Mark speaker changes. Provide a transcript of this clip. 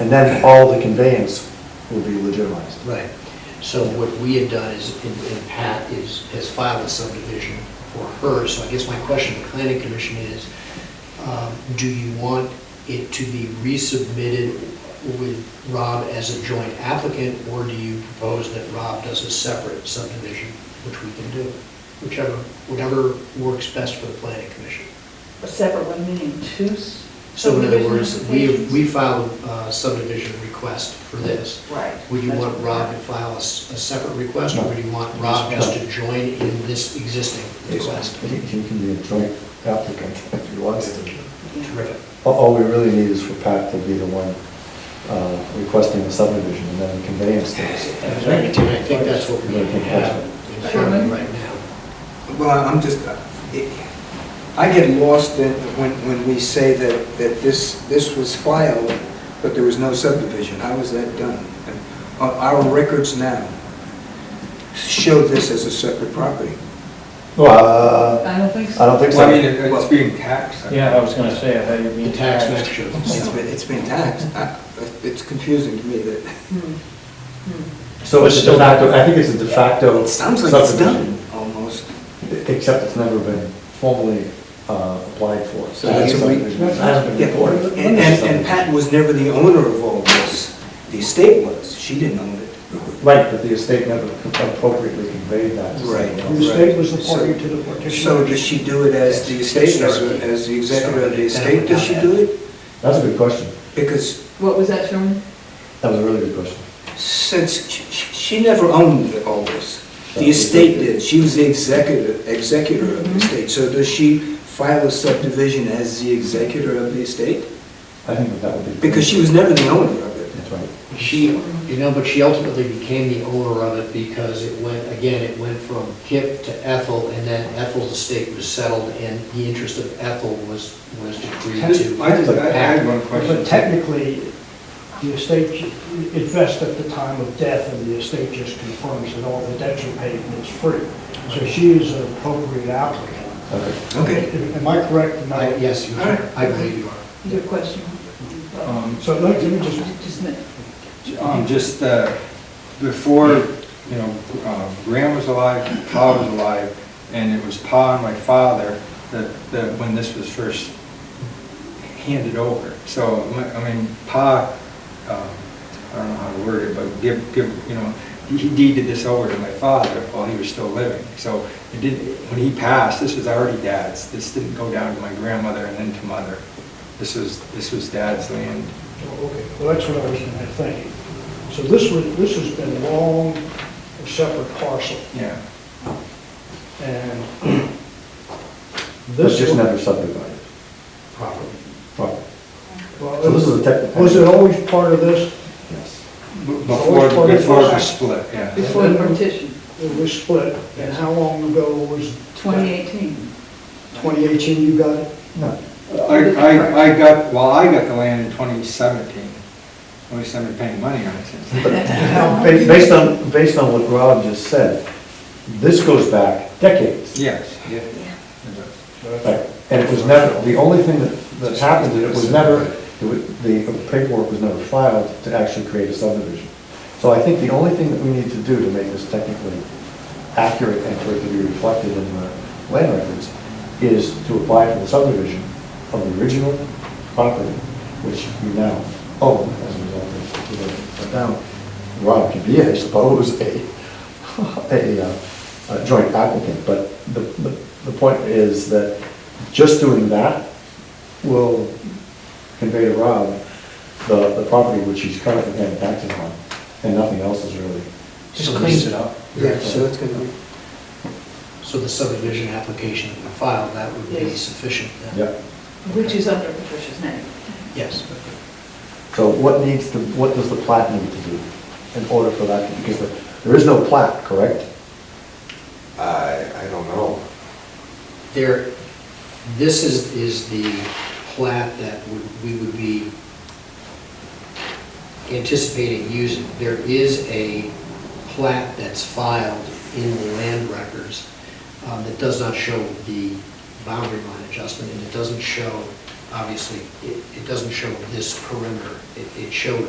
Speaker 1: And then all the conveyance will be legitimized.
Speaker 2: Right. So what we had done is, and and Pat is, has filed a subdivision for her, so I guess my question to the planning commission is, um, do you want it to be resubmitted with Rob as a joint applicant, or do you propose that Rob does a separate subdivision, which we can do? Whichever, whatever works best for the planning commission.
Speaker 3: A separate one, meaning two? s- Hmm,
Speaker 2: So in other words, we,
Speaker 3: subdivision
Speaker 2: we filed a subdivision request for this.
Speaker 3: applications? Right.
Speaker 2: Would you
Speaker 3: That's
Speaker 2: want
Speaker 3: what
Speaker 2: Rob to
Speaker 3: we're-
Speaker 2: file a, s- a separate request,
Speaker 1: No.
Speaker 2: or would you want Rob just to join in this existing request?
Speaker 1: He he can be a joint applicant if he wants to.
Speaker 3: yeah.
Speaker 2: Terrific.
Speaker 1: All- All we really need is for Pat to be the one uh, requesting the subdivision and then the conveyance stays.
Speaker 2: And I think that's what we
Speaker 1: I think that's
Speaker 2: have in front of you right now.
Speaker 4: Well, I'm just, uh, it- I get lost in, when, when we say that, that this, this was filed, but there was no subdivision. How was that done? And Our our records now show this as a separate property.
Speaker 1: Well,
Speaker 3: I don't think so.
Speaker 1: I don't think
Speaker 5: Well, I mean,
Speaker 1: so.
Speaker 5: it- it's being taxed.
Speaker 6: Yeah, I was gonna say, I had you
Speaker 2: The
Speaker 6: being
Speaker 2: tax map
Speaker 6: taxed.
Speaker 2: shows.
Speaker 4: It's been, it's been taxed. I- It's confusing to me that,
Speaker 3: Hmm. Hmm.
Speaker 1: So it's a de facto, I think it's a de facto
Speaker 4: it sounds like it's
Speaker 1: subdivision.
Speaker 4: done, almost.
Speaker 1: Except it's never been formally uh, applied for.
Speaker 4: So that's a re-
Speaker 1: Subdivision hasn't
Speaker 4: Yeah,
Speaker 1: been recorded.
Speaker 4: And, and- and Pat was never the owner of all this. The estate was. She didn't own it.
Speaker 1: Right, but the estate never appropriately conveyed that. to
Speaker 4: Right.
Speaker 1: someone
Speaker 4: The
Speaker 1: else.
Speaker 4: estate was the party
Speaker 2: to the partition.
Speaker 4: So does she do it as the estate, as, as the executor of the estate, does she do it?
Speaker 1: That's a good question.
Speaker 4: Because
Speaker 3: What was that, Sherman?
Speaker 1: That was a really good question.
Speaker 4: since she- she never owned all this, the estate did, she was the executor, executor
Speaker 5: Mm-hmm.
Speaker 4: of the estate. So does she file a subdivision as the executor of the estate?
Speaker 1: I think that that would be.
Speaker 4: Because she was never the owner of it.
Speaker 1: That's right.
Speaker 2: She, you know, but she ultimately became the owner of it because it went, again, it went from Kip to Ethel, and then Ethel's estate was settled, and the interest of Ethel was, was decreed
Speaker 5: I just,
Speaker 2: to.
Speaker 5: I had
Speaker 2: Pat.
Speaker 5: one question.
Speaker 7: But technically, the estate invests at the time of death, and the estate just confirms that all the debts are paid and it's free. So she is an appropriate applicant.
Speaker 1: Okay.
Speaker 4: Okay.
Speaker 7: Am I correct in
Speaker 2: I-
Speaker 7: that?
Speaker 2: Yes, you are. I believe you are.
Speaker 3: Your question?
Speaker 5: Um,
Speaker 7: So let me just,
Speaker 3: Just a minute.
Speaker 5: Um, just, uh, before, you know, um, Graham was alive, Pa was alive, and it was Pa and my father that, that when this was first handed over. So, I mean, Pa, um, I don't know how to word it, but give, give, you know, he deeded this over to my father while he was still living. So it didn't, when he passed, this was already dad's. This didn't go down to my grandmother and then to mother. This was, this was dad's land.
Speaker 7: oh, okay, well, that's what I was gonna think. So this was, this has been long, a separate parcel,
Speaker 5: Yeah.
Speaker 7: and
Speaker 1: But
Speaker 7: this.
Speaker 1: just
Speaker 7: one-
Speaker 1: never subdivided.
Speaker 2: Properly.
Speaker 1: Right.
Speaker 7: well,
Speaker 1: So this is a technical.
Speaker 7: Oh, Was it always part of this?
Speaker 1: Yes.
Speaker 5: Before, before it was split, yeah.
Speaker 3: Before the partition,
Speaker 7: It was split, and how long ago was? that?
Speaker 3: 2018.
Speaker 7: 2018, you got it?
Speaker 1: No.
Speaker 5: I, I, I got, well, I got the land in 2017. At least I've been paying money on it since then.
Speaker 1: Ba- Based on, based on what Rob just said, this goes back decades.
Speaker 5: Yes, yeah.
Speaker 1: Right. And it was never, the only thing that, that happened, is it was never, it was- the paperwork was never filed to actually create a subdivision. So I think the only thing that we need to do to make this technically accurate and for it to be reflected in the land records is to apply for the subdivision of the original property, which we now own as a result of the development. But now, Rob can be, I suppose, a, a uh, a joint applicant, but the, the- the point is that just doing that will convey to Rob the, the property which he's currently paying taxes on, and nothing else is really.
Speaker 2: Just cleans it up.
Speaker 4: Yeah, so it's gonna be.
Speaker 2: So the subdivision application that we filed, that would be
Speaker 3: Yes.
Speaker 2: sufficient then?
Speaker 1: Yep.
Speaker 3: Which is under Patricia's name.
Speaker 2: Yes.
Speaker 1: So what needs to, what does the plat need to do in order for that, to- because there- there is no plat, correct?
Speaker 8: I, I don't know.
Speaker 2: There, this is, is the plat that would- we would be anticipating using. There is a plat that's filed in the land records um, that does not show the boundary line adjustment, and it doesn't show obviously, it, it doesn't show this perimeter, it, it showed